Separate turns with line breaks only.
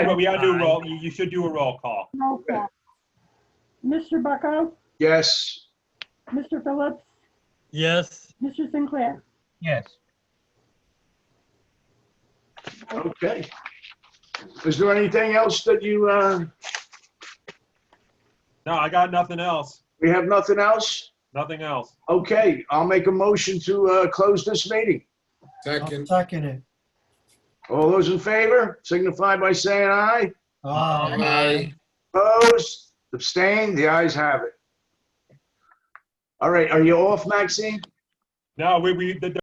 But we gotta do a roll, you, you should do a roll call.
Roll call. Mr. Bucko,
Yes.
Mr. Phillips,
Yes,
Mr. Sinclair.
Yes.
Okay. Is there anything else that you, uh,
No, I got nothing else,
we have nothing else?
nothing else.
Okay, I'll make a motion to, uh, close this meeting.
Second.
Second it.
All those in favor signify by saying aye.
Aye.
Opposed, abstained, the ayes have it. All right, are you off, Maxine?
No, we, we, the,